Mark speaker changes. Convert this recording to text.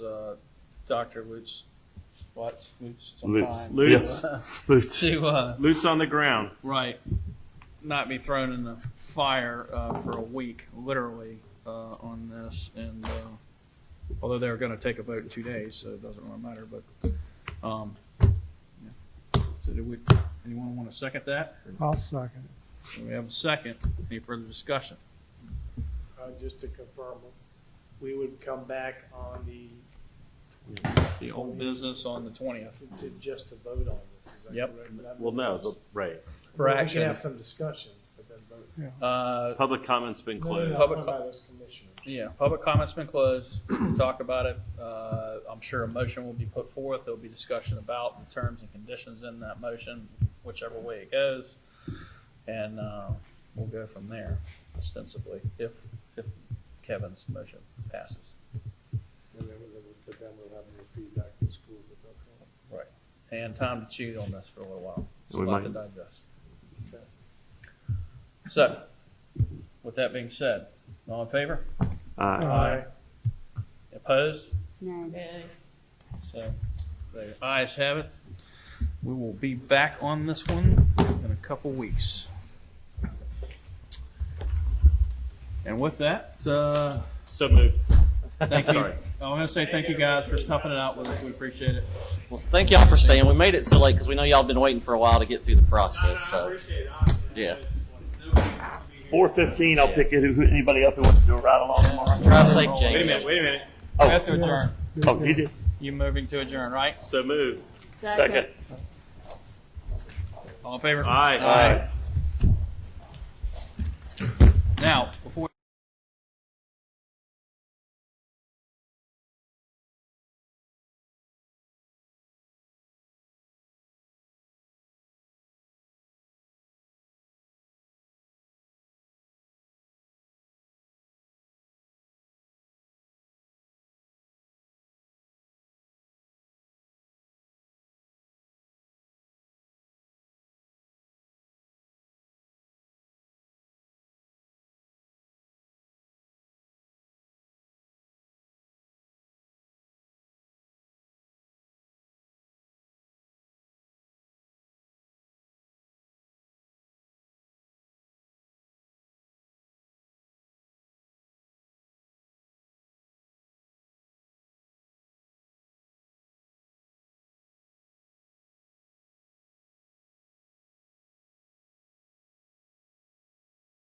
Speaker 1: Dr. uh, Lutz, Watts, Lutz,
Speaker 2: Lutz.
Speaker 1: sometime.
Speaker 2: Yes.
Speaker 3: Lutz,
Speaker 2: Lutz.
Speaker 1: To, uh,
Speaker 3: Lutz on the ground.
Speaker 1: right, not be thrown in the fire, uh, for a week, literally, uh, on this. And, uh, although they're gonna take a vote in two days, so it doesn't really matter, but, um, yeah. so do we, anyone want to second that?
Speaker 4: I'll second.
Speaker 1: Do We have a second. Any further discussion?
Speaker 5: Uh, just to confirm, we would come back on the,
Speaker 1: The old business on the twentieth.
Speaker 5: to just to vote on this, is that
Speaker 1: Yep.
Speaker 5: correct? But I-
Speaker 2: Well, no, the, right.
Speaker 1: For
Speaker 5: We can
Speaker 1: action.
Speaker 5: have some discussion, but then vote.
Speaker 1: Uh,
Speaker 2: Public comment's been
Speaker 5: No, no,
Speaker 2: closed.
Speaker 5: no,
Speaker 1: Public
Speaker 5: I'm talking about as commissioners.
Speaker 1: yeah, public comment's been closed. We can Talk about it. Uh, I'm sure a motion will be put forth. There'll be discussion about the terms and conditions in that motion, whichever way it goes. And, uh, we'll go from there ostensibly, if, if Kevin's motion passes.
Speaker 5: And then we'll, but then we'll have the feedback from schools that don't come.
Speaker 1: and time to chew on this for a little while. It's a
Speaker 2: We
Speaker 1: lot to digest. So, with that being said, all in favor?
Speaker 2: Uh,
Speaker 5: Aye.
Speaker 1: Opposed?
Speaker 6: No.
Speaker 1: So, the ayes have it. We will be back on this one in a couple weeks. And with that, uh,
Speaker 2: so moved.
Speaker 1: thank you.
Speaker 2: Sorry.
Speaker 1: I want to say thank you guys for toughing it out with us. We appreciate it.
Speaker 7: Well, thank y'all for staying. We made it so late because we know y'all been waiting for a while to get through the process. So,
Speaker 3: appreciate it, honestly.
Speaker 7: Yeah.
Speaker 2: Four fifteen, I'll pick it, who- anybody up who wants to do a ride along tomorrow.
Speaker 7: drive safe, James.
Speaker 3: Wait a minute, wait a minute.
Speaker 1: We have to
Speaker 2: Oh,
Speaker 1: adjourn.
Speaker 2: oh, you did,
Speaker 1: You moving to adjourn, right?
Speaker 3: So moved.
Speaker 2: second.
Speaker 1: All in favor?
Speaker 3: Aye.
Speaker 1: Now,